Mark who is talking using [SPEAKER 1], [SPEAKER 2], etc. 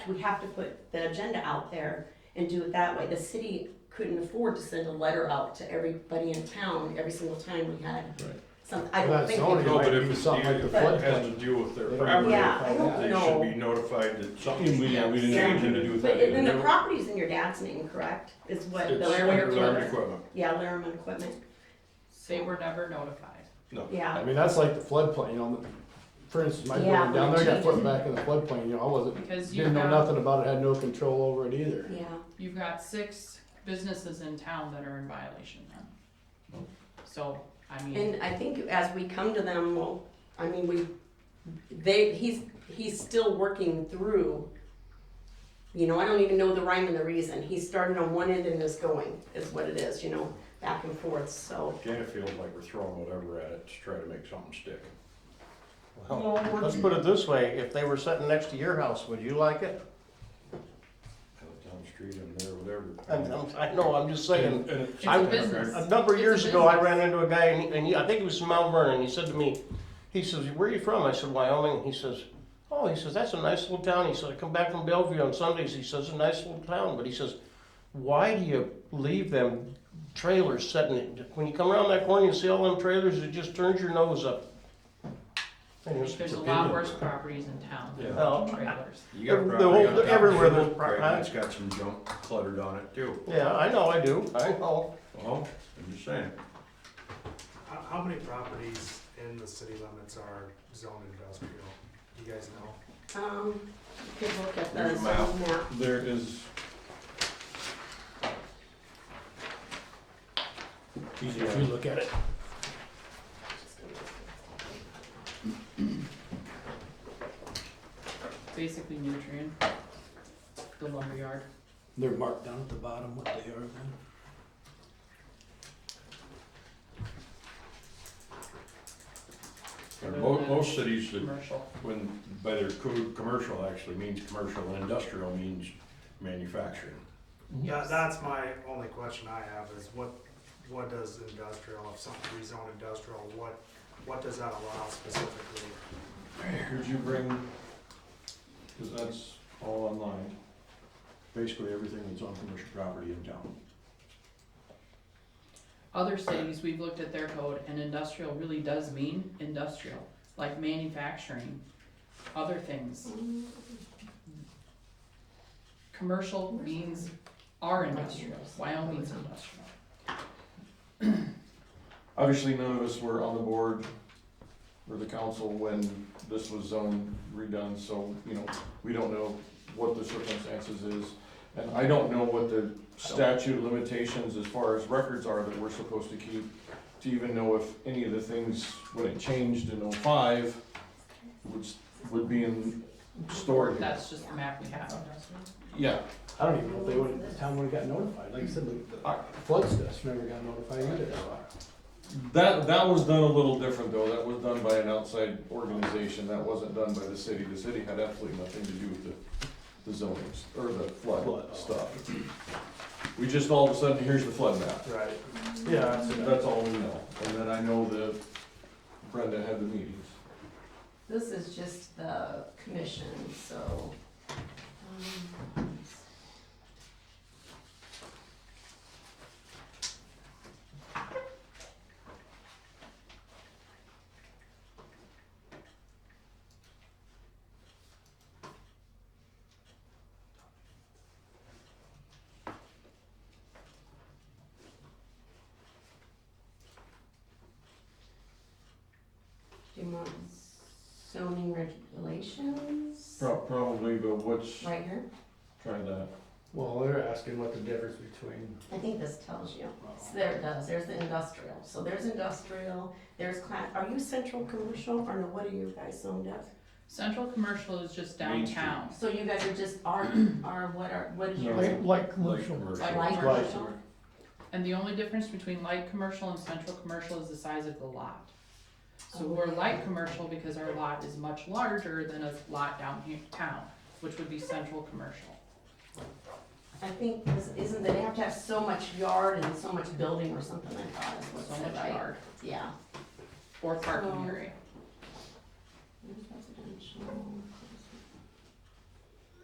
[SPEAKER 1] we have to put the agenda out there and do it that way. The city couldn't afford to send a letter out to everybody in town every single time we had
[SPEAKER 2] Right.
[SPEAKER 1] some, I
[SPEAKER 3] Well,
[SPEAKER 1] don't
[SPEAKER 3] that's
[SPEAKER 1] think.
[SPEAKER 3] zoning.
[SPEAKER 1] we-
[SPEAKER 3] It
[SPEAKER 2] No,
[SPEAKER 3] might
[SPEAKER 2] but
[SPEAKER 3] be
[SPEAKER 2] if it's
[SPEAKER 3] something like the
[SPEAKER 2] deal- it has to
[SPEAKER 3] floodplain.
[SPEAKER 2] deal with their
[SPEAKER 3] They don't
[SPEAKER 2] property,
[SPEAKER 1] Yeah, I don't
[SPEAKER 2] they
[SPEAKER 1] know.
[SPEAKER 2] should be notified that something And we, yeah, we
[SPEAKER 1] Yes.
[SPEAKER 2] didn't change it to do
[SPEAKER 1] But
[SPEAKER 2] that.
[SPEAKER 1] it- then
[SPEAKER 2] and
[SPEAKER 1] the
[SPEAKER 2] never-
[SPEAKER 1] property's in your dad's name, correct? Is what the
[SPEAKER 2] It's
[SPEAKER 1] Laramie
[SPEAKER 2] under Laramie
[SPEAKER 1] equipment.
[SPEAKER 2] equipment,
[SPEAKER 1] Yeah, Laramie equipment,
[SPEAKER 4] They were never notified.
[SPEAKER 2] no.
[SPEAKER 1] yeah.
[SPEAKER 3] I mean, that's like the floodplain, you know, for instance, my
[SPEAKER 1] Yeah.
[SPEAKER 3] building down there got put back in the floodplain, you know, I wasn't,
[SPEAKER 4] Because you've
[SPEAKER 3] didn't know
[SPEAKER 4] got,
[SPEAKER 3] nothing about it, had no control over it either.
[SPEAKER 1] Yeah,
[SPEAKER 4] you've got six businesses in town that are in violation then. So, I mean,
[SPEAKER 1] and I think as we come to them, well, I mean, we, they, he's, he's still working through. You know, I don't even know the rhyme and the reason. He's starting on one end and is going, is what it is, you know, back and forth, so.
[SPEAKER 2] Kind of feels like we're throwing whatever at it to try to make something stick.
[SPEAKER 5] Well, let's put it this way, if they were sitting next to your house, would you like it?
[SPEAKER 2] Out Down the street and there, whatever.
[SPEAKER 5] I'm, I'm, I know, I'm just saying,
[SPEAKER 2] And- and it's-
[SPEAKER 4] It's a business.
[SPEAKER 5] a number of
[SPEAKER 4] It's a
[SPEAKER 5] years ago, I ran into a guy, and, he- and he, I think he was from Mount Vernon, he said to me, he says, where are you from? I said, Wyoming, he says, oh, he says, that's a nice little town, he said, I come back from Bellevue on Sundays, he says, a nice little town, but he says, why do you leave them trailers sitting, when you come around that corner, you see all them trailers, it just turns your nose up. And he was-
[SPEAKER 4] there's a lot worse properties in town than
[SPEAKER 5] Yeah.
[SPEAKER 4] trailers.
[SPEAKER 2] You got
[SPEAKER 5] The
[SPEAKER 2] property
[SPEAKER 5] whole-
[SPEAKER 2] on top of
[SPEAKER 5] everywhere
[SPEAKER 2] it,
[SPEAKER 5] there's pro-
[SPEAKER 2] right,
[SPEAKER 5] huh?
[SPEAKER 2] and It's got some junk cluttered on it too.
[SPEAKER 5] Yeah, I know, I do, I know,
[SPEAKER 2] Well, I'm just saying.
[SPEAKER 6] How, how many properties in the city limits are zoned industrial? Do you guys know?
[SPEAKER 1] Um, you could look at the
[SPEAKER 2] There's a map.
[SPEAKER 1] zone map.
[SPEAKER 2] There is.
[SPEAKER 3] Easier if you look at it.
[SPEAKER 4] Basically nutrient, the lumberyard.
[SPEAKER 3] They're marked down at the bottom what they are then.
[SPEAKER 2] Most, most cities that
[SPEAKER 4] Commercial.
[SPEAKER 2] When, by their code, commercial actually means commercial and industrial means manufacturing.
[SPEAKER 6] Yeah, that's my only question I have is what, what does industrial, if something rezoned industrial, what, what does that allow specifically?
[SPEAKER 2] Could you bring, cause that's all online, basically everything that's on commercial property in town.
[SPEAKER 4] Other cities, we've looked at their code and industrial really does mean industrial, like manufacturing, other things. Commercial means our industrial, Wyoming's industrial.
[SPEAKER 7] Obviously, none of us were on the board or the council when this was zone redone, so, you know, we don't know what the circumstances is. And I don't know what the statute of limitations as far as records are that we're supposed to keep to even know if any of the things, when it changed in oh-five, would, would be in stored here.
[SPEAKER 4] That's just the map we have.
[SPEAKER 7] Yeah,
[SPEAKER 3] I don't even know if they would, the town would've got notified, like I said, the- the flood stuff never got notified either.
[SPEAKER 7] That, that was done a little different though, that was done by an outside organization, that wasn't done by the city, the city had absolutely nothing to do with the, the zonings, or the
[SPEAKER 3] Flood, oh.
[SPEAKER 7] flood stuff. We just all of a sudden, here's the flood map,
[SPEAKER 6] Right.
[SPEAKER 3] Yeah,
[SPEAKER 7] that's all we know, and then I know that Brenda had the meetings.
[SPEAKER 1] This is just the commission, so. um, Do you want zoning regulations?
[SPEAKER 7] Prob- Probably, but what's,
[SPEAKER 1] Right here?
[SPEAKER 7] try that,
[SPEAKER 3] Well, they're asking what the difference between.
[SPEAKER 1] I think this tells you.
[SPEAKER 4] Oh.
[SPEAKER 1] So there it does, there's the industrial. So there's industrial, there's class, are you central commercial or no, what are you guys zoned up?
[SPEAKER 4] Central commercial is just
[SPEAKER 2] Main Street.
[SPEAKER 4] downtown.
[SPEAKER 1] So you guys are just, are, are what are, what is your?
[SPEAKER 7] Like-
[SPEAKER 2] Like
[SPEAKER 1] Like
[SPEAKER 2] commercial.
[SPEAKER 1] light commercial?
[SPEAKER 4] And the only difference between light commercial and central commercial is the size of the lot. So we're light commercial because our lot is much larger than a lot downtown, which would be central commercial.
[SPEAKER 1] I think, this- isn't that they have to have so much yard and so much building or something like that is what it
[SPEAKER 4] So
[SPEAKER 1] said,
[SPEAKER 4] much
[SPEAKER 1] right?
[SPEAKER 4] yard
[SPEAKER 1] Yeah.
[SPEAKER 4] or parking
[SPEAKER 1] Oh.
[SPEAKER 4] area.
[SPEAKER 1] Residential.